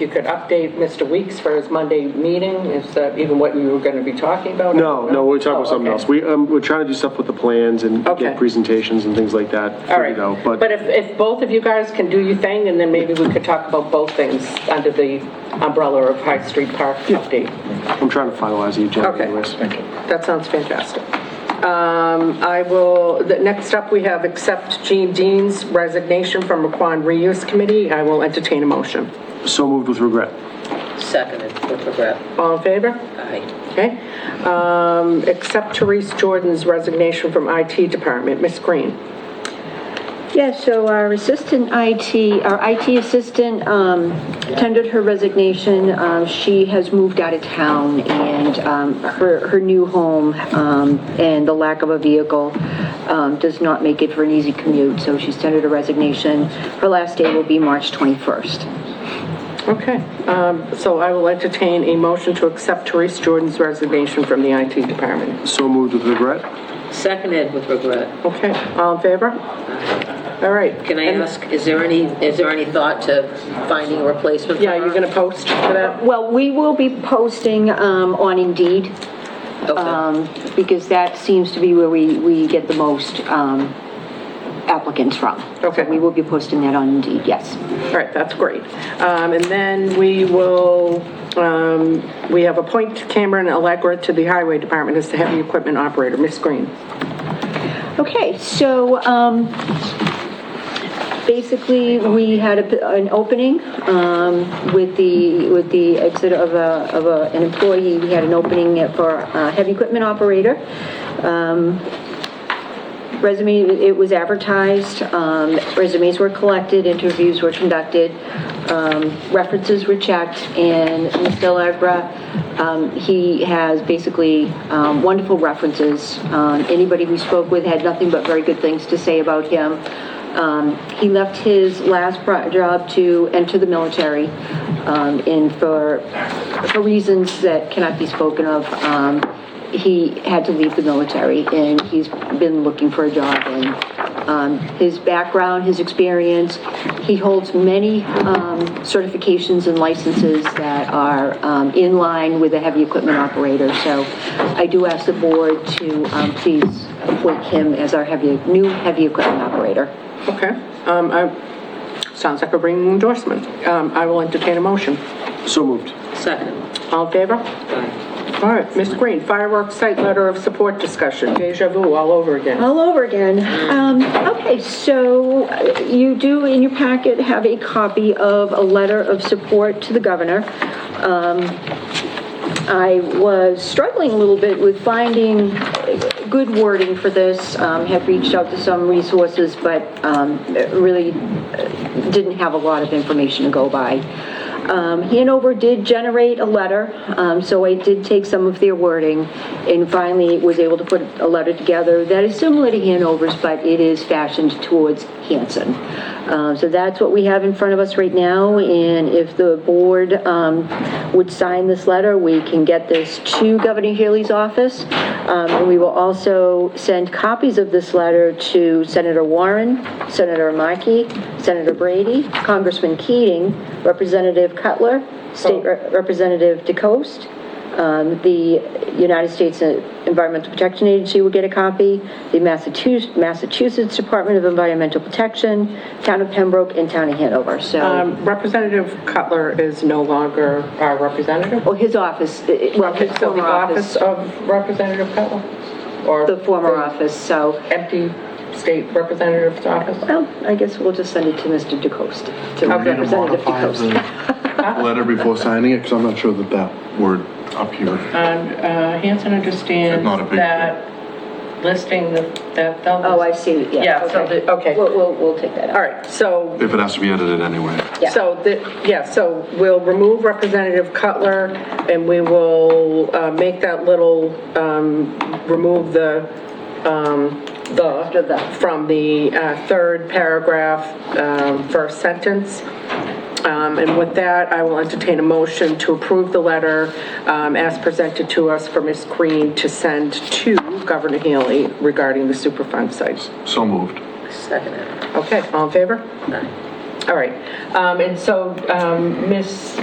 you could update Mr. Weeks for his Monday meeting, is that even what you were going to be talking about? No, no, we're talking about Oh, something okay. else. We, um, we're trying to do stuff with the plans and Okay. get presentations and things like that. All figured right, out, but if, if both of you guys can do your thing, and then maybe we could talk about both things under the umbrella of High Street Park update. I'm trying to finalize the agenda Okay. anyways. That sounds fantastic. Um, I will, the- next up, we have accept Jean Dean's resignation from Raquan Reuse Committee. I will entertain a motion. So moved with regret. Seconded with regret. All in favor? Aye. Okay. Um, Accept Therese Jordan's resignation from IT Department. Ms. Green? Yeah, so our assistant IT, our IT assistant um, tendered her resignation. Um, She has moved out of town, and um, her her new home um, and the lack of a vehicle um, does not make it for an easy commute, so she's tendered a resignation. Her last day will be March 21st. Okay. Um, So I will entertain a motion to accept Therese Jordan's resignation from the IT Department. So moved with regret. Seconded with regret. Okay, all in favor? All right. Can I ask, is there any, is there any thought to finding a replacement? for Yeah, you're her? going to post for that? Well, we will be posting um, on Indeed, Okay. um, because that seems to be where we we get the most um, applicants from. Okay. So we will be posting that on Indeed, yes. All right, that's great. Um, And then we will, um, we have appoint Cameron Allegra to the Highway Department as the heavy equipment operator. Ms. Green? Okay, so um, basically, we had a- an opening um, with the, with the exit of a, of a- an employee. We had an opening for a heavy equipment operator. Um, Resume, it was advertised, um, resumes were collected, interviews were conducted, um, references were checked, and Mr. Allegra, um, he has basically um, wonderful references. Um, Anybody we spoke with had nothing but very good things to say about him. Um, He left his last pro- job to enter the military, um, and for, for reasons that cannot be spoken of, um, he had to leave the military, and he's been looking for a job. And um, his background, his experience, he holds many um, certifications and licenses that are um, in line with a heavy equipment operator. So I do ask the board to um, please appoint him as our heavy, new heavy equipment operator. Okay. Um, I- Sounds like a ringing endorsement. Um, I will entertain a motion. So moved. Seconded. All in favor? Aye. All right, Ms. Green, fireworks site letter of support discussion, deja vu all over again. All over again. Um, Okay, so uh, you do in your packet have a copy of a letter of support to the governor. Um, I was struggling a little bit with finding good wording for this, um, have reached out to some resources, but um, really uh, didn't have a lot of information to go by. Um, Hanover did generate a letter, um, so I did take some of their wording, and finally was able to put a letter together that is similar to Hanover's, but it is fashioned towards Hanson. Uh, So that's what we have in front of us right now, and if the board um, would sign this letter, we can get this to Governor Healy's office, Um, and we will also send copies of this letter to Senator Warren, Senator Markey, Senator Brady, Congressman Keating, Representative Cutler, State Rep- Representative DeCoste, um, The United States Environmental Protection Agency will get a copy, the Massachusetts Massachusetts Department of Environmental Protection, Town of Pembroke, and Town of Hanover. So, Um, Representative Cutler is no longer our representative? well, his office, it- it- well, his It's still the former office office, of Representative Cutler? Or the former office, so, Empty state representative's office? well, I guess we'll just send it to Mr. DeCoste, to Okay. Need to Representative modify DeCoste. the letter before signing it, because I'm not sure that that word up here. And uh, Hanson understands It's not a big that listing, the- that they'll... Oh, I see, yeah. Yeah, so the- okay. We'll, we'll, we'll take that out. All right, so, If it has to be edited anyway. Yeah. so, the- yeah, so we'll remove Representative Cutler, and we will uh, make that little, um, remove the, um, After the. the, from the uh, third paragraph, um, first sentence. Um, And with that, I will entertain a motion to approve the letter um, as presented to us for Ms. Green to send to Governor Healy regarding the Superfund sites. So moved. Seconded. Okay, all in favor? Aye. All right. Um, And so, um, Ms.